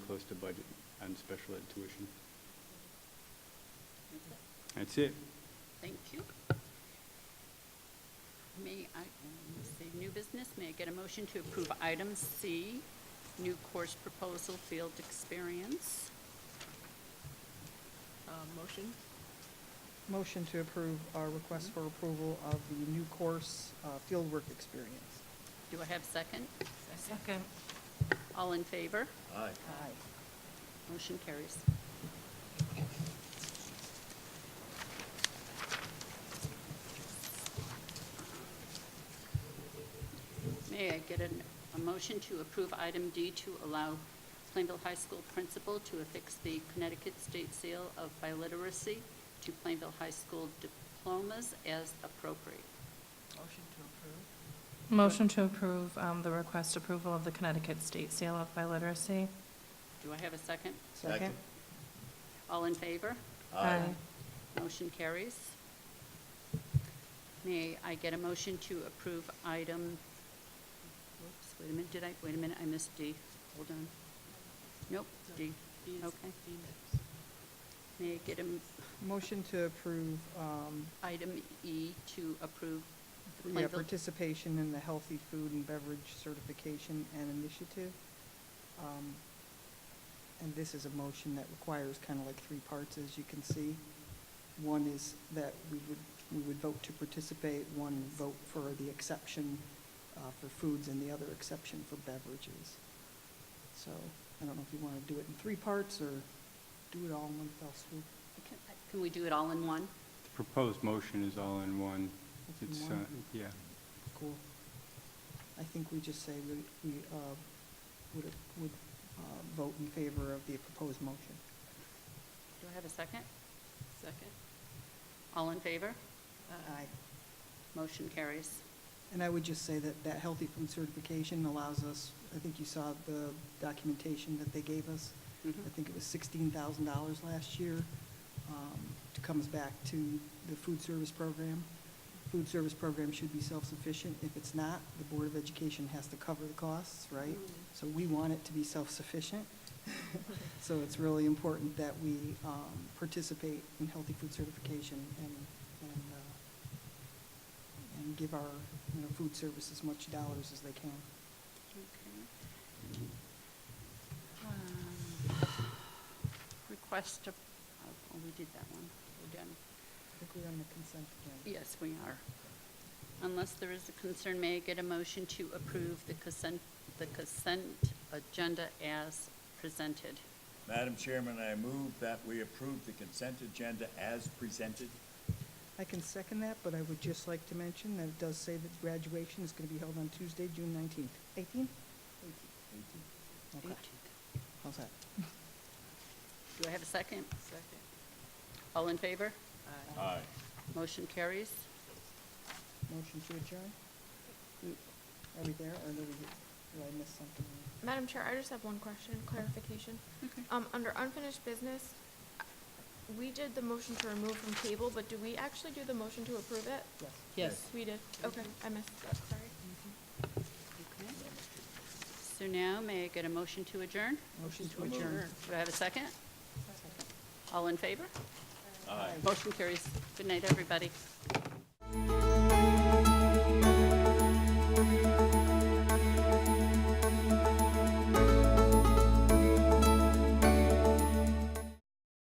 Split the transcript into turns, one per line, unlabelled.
close to budget on special ed tuition. That's it.
Thank you. May I, let me see, new business, may I get a motion to approve item C, new course proposal, field experience?
Uh, Motion?
Motion to approve our request for approval of the new course, uh, fieldwork experience.
Do I have second?
Second.
All in favor?
Aye.
Aye.
Motion carries. May I get an- a motion to approve item D to allow Plainville High School principal to affix the Connecticut State Seal of Biliteracy to Plainville High School diplomas as appropriate?
Motion to approve.
Motion to approve um, the request approval of the Connecticut State Sale of Biliteracy.
Do I have a second?
Second?
All in favor?
Aye.
Motion carries. May I get a motion to approve item, whoops, wait a minute, did I, wait a minute, I missed D. Hold on. Nope, D.
B is-
Okay.
B next.
May I get an
Motion to approve um,
item E to approve the
yeah,
Plainville?
participation in the Healthy Food and Beverage Certification and Initiative. Um, And this is a motion that requires kind of like three parts, as you can see. One is that we would, we would vote to participate, one vote for the exception uh, for foods, and the other exception for beverages. So I don't know if you want to do it in three parts or do it all in one fell swoop.
Can- Can we do it all in one?
The proposed motion is all in one.
It's in
It's, uh,
one.
yeah.
Cool. I think we just say we, we, uh, would, would, uh, vote in favor of the proposed motion.
Do I have a second?
Second?
All in favor?
Aye.
Motion carries.
And I would just say that that healthy food certification allows us, I think you saw the documentation that they gave us.
Mhm.
I think it was sixteen thousand dollars last year, um, to comes back to the food service program. Food service program should be self-sufficient. If it's not, the Board of Education has to cover the costs, right?
Mhm.
So we want it to be self-sufficient. So it's really important that we, um, participate in healthy food certification and, and, uh, and give our, you know, food service as much dollars as they can.
Okay. Um, Request, of- oh, we did that one. We're done.
I think we're on the consent agenda.
Yes, we are. Unless there is a concern, may I get a motion to approve the consent, the consent agenda as presented?
Madam Chairman, I move that we approve the consent agenda as presented.
I can second that, but I would just like to mention that it does say that graduation is going to be held on Tuesday, June nineteenth. Eighteen? Okay, how's that?
Do I have a second?
Second.
All in favor?
Aye.
Aye.
Motion carries?
Motion to adjourn? Are we there, or did we, did I miss something?
Madam Chair, I just have one question, clarification.
Okay.
Um, under unfinished business, uh, we did the motion to remove from table, but do we actually do the motion to approve it?
Yes.
Yes.
We did, okay, I missed that, sorry.
Okay. So now, may I get a motion to adjourn?
Motion to
Motion.
adjourn.
Do I have a second? All in favor?
Aye.
Motion carries. Good night, everybody.